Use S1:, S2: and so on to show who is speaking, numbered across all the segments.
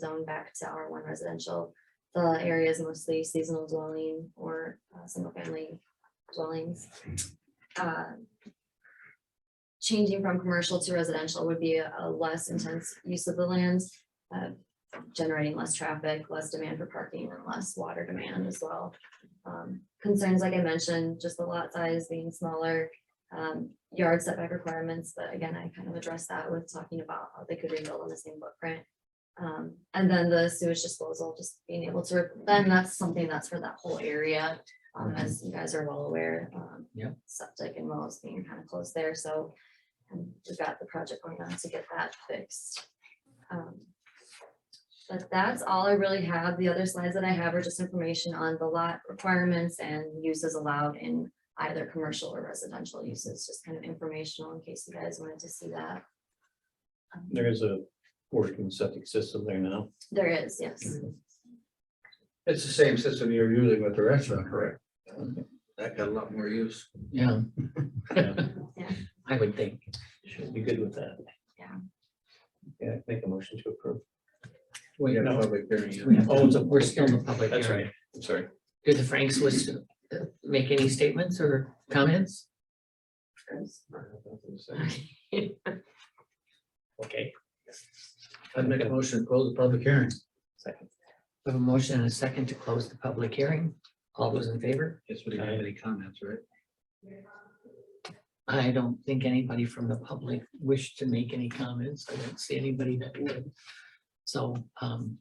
S1: zone back to R one residential. The area is mostly seasonal dwelling or uh, single family dwellings. Uh, Changing from commercial to residential would be a a less intense use of the land, uh, generating less traffic, less demand for parking and less water demand as well. Um, Concerns, like I mentioned, just the lot size being smaller, um, yard setback requirements, but again, I kind of addressed that with talking about how they could rebuild on the same footprint. Um, and then the sewage disposal, just being able to, re- then that's something that's for that whole area, um, as you guys are well aware, um.
S2: Yep.
S1: Septic and wells being kind of close there, so, um, we've got the project going on to get that fixed. Um, But that's all I really have. The other slides that I have are just information on the lot requirements and uses allowed in either commercial or residential uses, just kind of informational in case you guys wanted to see that. Um,
S3: There is a working septic system there now.
S1: There is, yes.
S4: It's the same system you're using with the restaurant, correct? That got a lot more use.
S2: Yeah,
S1: Yeah.
S2: I would think.
S3: Should be good with that.
S1: Yeah.
S3: Yeah, make a motion to approve.
S2: Wait,
S4: You got
S2: no,
S4: public hearing.
S2: we have
S3: Oh, it's
S2: to-
S3: a-
S2: we're still in the public
S3: That's
S2: hearing.
S3: right. I'm sorry.
S2: Do the Franks wish to uh, make any statements or comments? Okay,
S4: I'd make a motion to close the public hearing.
S3: Second.
S2: we have a motion and a second to close the public hearing. All those in favor?
S4: Guess we don't have any comments, right?
S2: I don't think anybody from the public wished to make any comments. I don't see anybody that would. So, um,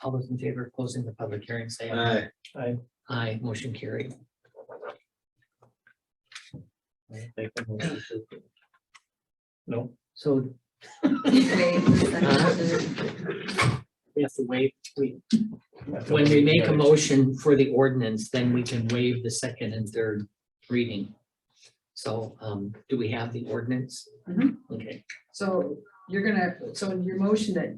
S2: all those in favor of closing the public hearing, say aye.
S4: Aye.
S2: Aye, motion carried.
S3: Make a motion to approve. No,
S2: So we have to wait, we, When we make a motion for the ordinance, then we can waive the second and third reading. So, um, do we have the ordinance?
S5: Mhm.
S2: Okay,
S5: So you're gonna, so in your motion that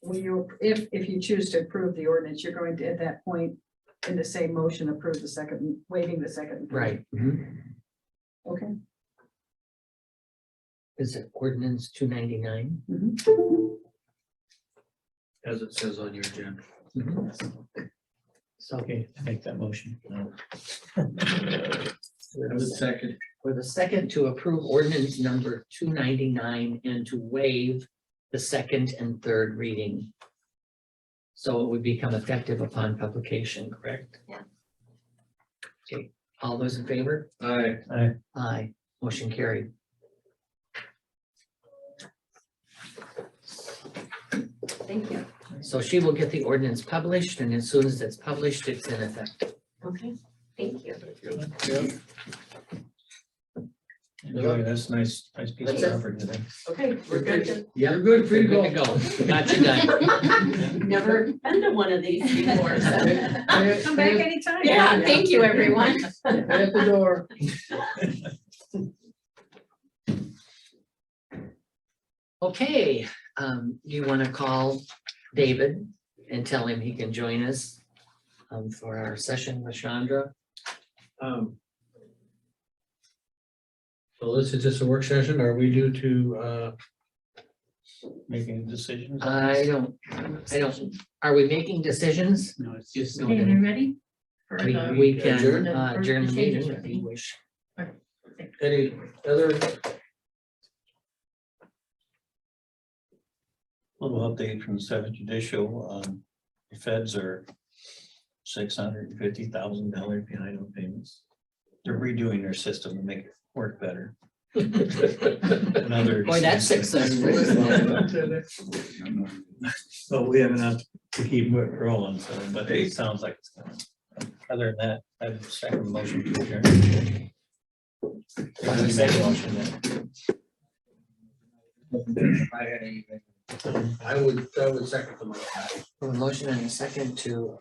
S5: when you, if, if you choose to approve the ordinance, you're going to, at that point, in the same motion, approve the second, waiving the second.
S2: right.
S5: Okay.
S2: Is it ordinance two ninety-nine?
S5: mm-hmm.
S4: As it says on your agenda.
S2: So
S3: Okay, make that motion.
S2: for
S4: As a
S2: the-
S4: second.
S2: for the second to approve ordinance number two ninety-nine and to waive the second and third reading. So it would become effective upon publication, correct?
S1: Yeah.
S2: Okay, all those in favor?
S4: Aye.
S2: Aye, motion carried.
S1: Thank you.
S2: So she will get the ordinance published and as soon as it's published, it's in effect.
S1: Okay. Thank you.
S3: Enjoy, that's nice, nice piece of
S2: That's it.
S3: effort today.
S5: Okay,
S4: we're good.
S2: Yeah,
S4: You're good, free to go.
S2: Got you done.
S6: Never been to one of these before, so.
S5: Come back anytime.
S6: Yeah, thank you, everyone.
S4: At the door.
S2: Okay, um, do you want to call David and tell him he can join us um, for our session with Chandra?
S4: Um, So this is just a work session, are we due to, uh,
S3: Making decisions.
S2: I don't, I don't, are we making decisions?
S4: no, it's just.
S6: Okay, you ready? For
S2: We,
S6: the-
S2: we can
S4: Adjourn?
S2: uh, adjourn the meeting if you wish.
S4: Any other
S3: Little update from seventh judicial, um, the feds are six hundred and fifty thousand dollars behind on payments. They're redoing their system to make it work better. Another.
S2: Boy, that's successful, isn't it?
S3: But we have enough to keep it rolling, so, but it sounds like it's gonna. Other than that, I have a second motion to adjourn.
S2: have a second.
S3: Motion then.
S4: I had anything. I would, I would second the motion.
S2: A motion and a second to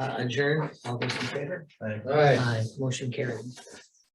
S2: uh, adjourn. All those in favor?
S4: All right.
S2: Aye, motion carried.